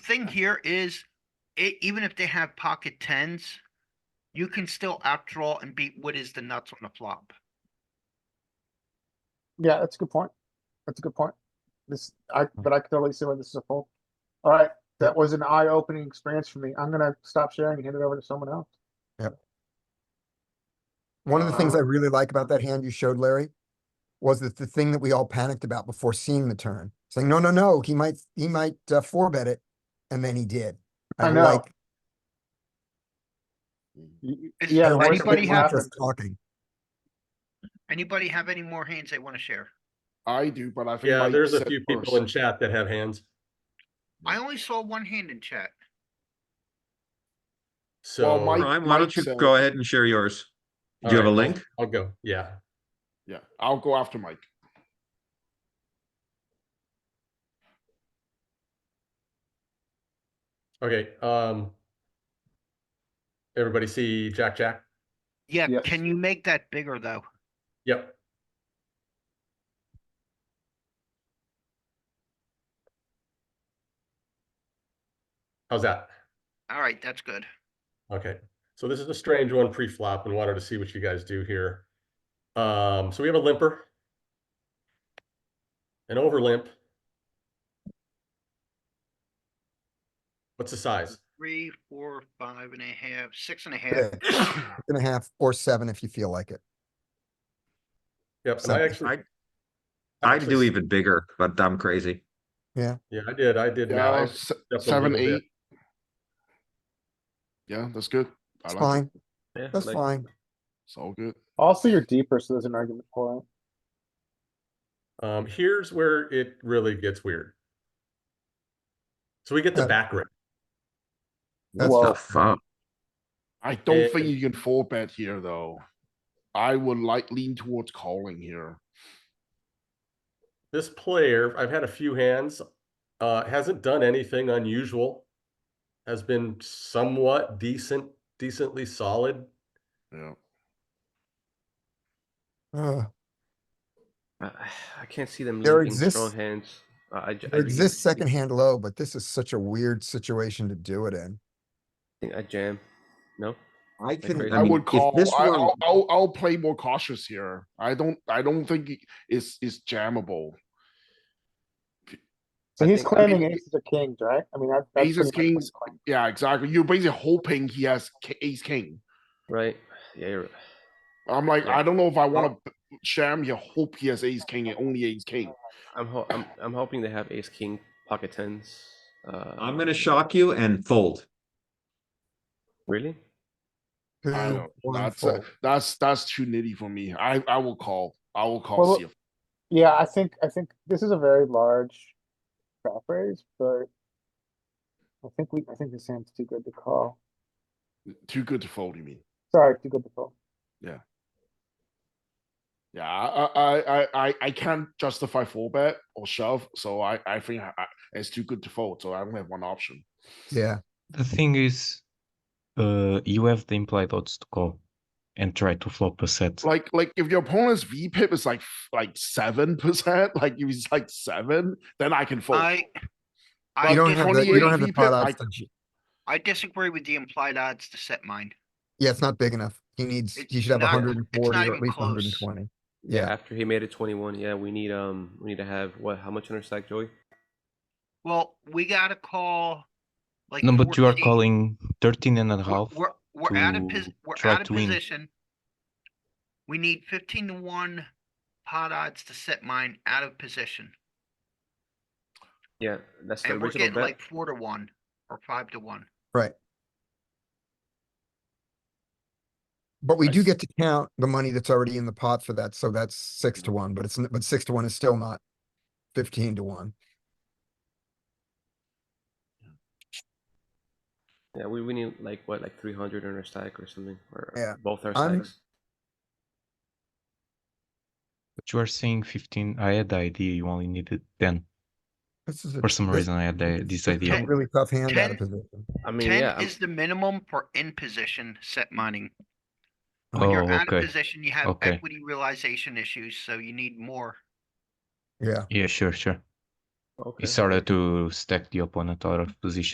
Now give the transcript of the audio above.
thing here is, it, even if they have pocket tens, you can still outdraw and beat what is the nuts on the flop. Yeah, that's a good point. That's a good point. This, I, but I can totally see why this is a fold. All right, that was an eye-opening experience for me. I'm gonna stop sharing and hand it over to someone else. One of the Uh-huh. things I really like about that hand you showed, Larry, was that the thing that we all panicked about before seeing the turn, saying, no, no, no, he might, he might uh, four bet it. And then he did. I know. like- Hmm. Y- y- Is- Yeah, I the like worst that of anybody we're it not have- happened. just Talking. Anybody have any more hands they wanna share? I do, but I think. Yeah, Mike there's a said few first, people in so- chat that have hands, I only saw one hand in chat. so. Mike- Ryan, why don't Mike you said- go ahead and share yours? Do you have a Alright, I'll- link? I'll go, yeah. Yeah, I'll go after Mike. Okay, um. Everybody see Jack, Jack? Yeah, Yes. can you make that bigger though? Yep. How's that? Alright, that's good. Okay, so this is a strange one pre-flop and wanted to see what you guys do here. Um, so we have a limper. An over limp. What's the size? Three, four, five and a half, six and a half. Six and a half or seven if you feel like it. Yep, and I Something. actually. I- I'd actually- do even bigger, but I'm crazy. Yeah, I did, I did. now. Yeah, I se- stepped up a seven, little bit. eight. Yeah, that's good. I It's like it. fine. Yeah, That's like- fine. It's all good. Also, you're deeper, so there's an argument for it. Um, here's where it really gets weird. So we get the Uh, back rip. That's Whoa. The fuck? I don't think Eh. you can four bet here, though. I would like lean towards calling here. This player, I've had a few hands, uh, hasn't done anything unusual. Has been somewhat decent, decently solid. Yeah, Uh, Uh, I can't see them There linking strong exists- hands. Uh, I, j- There I really exists think- second hand low, but this is such a weird situation to do it in. think I jam. No, I crazy. can, I I mean, would if call, this I, were, I'll, I'll, I'll play more cautious here. I don't, I don't think it- it's, it's jammable. So I he's think- I mean- claiming aces are kings, right? I mean, that- that's. pretty Aces, much kings. what he's claiming. Yeah, exactly. You're basically hoping he has ki- ace, king. right? Yeah, you're, I'm like, Yeah. I don't know if I wanna b- jam your hope he has ace, king and only ace, king. I'm, ho- I'm I'm hoping they have ace king pocket tens. Uh, I'm gonna shock you and fold. Really? Two, I don't, one, that's, fold. a- that's, that's too nitty for me. I, I will call, I will Well, call CF. Yeah, I think, I think this is a very large crop raise, but I think we, I think this hand's too good to call. Too good to fold, you mean? Sorry, too good to call. Yeah, I, I, I, I, I can't justify four bet or shove, so I, I think I, it's too good to fold, so I only have one option. Yeah, The thing is, uh, you have the implied odds to call and try to flop a set. Like, like if your opponent's V pip is like, f- like seven percent, like if he's like seven, then I can fold. I. I you don't did have the, you 28 don't have the VPip, pot I- odds. don't you? I disagree with the implied odds to set mine. Yeah, it's not big enough. He needs, It's he should have not- hundred and forty it's not or at even least close. hundred and twenty. Yeah, After he made it 21, yeah, we need um we need to have what? How much on our stack, Joey? Well, we gotta call. Like. No, but you are 14. calling 13 and a We're- half. We're, we're out of, pos- to we're try out of to win. position. We need fifteen to one pot odds to set mine out of position. Yeah, that's the And we're original getting bet. like four to one or five to one. right. But we I do s- get to count the money that's already in the pot for that, so that's six Mm-hmm. to one, but it's, n- but six to one is still not fifteen to one. Yeah, we, we need like what like 300 on our stack or something, or Yeah, both our I'm- stacks. But you are saying 15. I had the idea you only needed 10. This is. a- For some this- reason, I had the, it's this just a idea. Really tough hand out Ten- of position. I mean, yeah, Ten I'm- is the minimum for in position set mining. When Oh, you're out of okay. position, you have Okay. equity realization issues, so you need more. Yeah. Yeah, sure, sure. okay. uh, It's harder to stack the opponent out of position.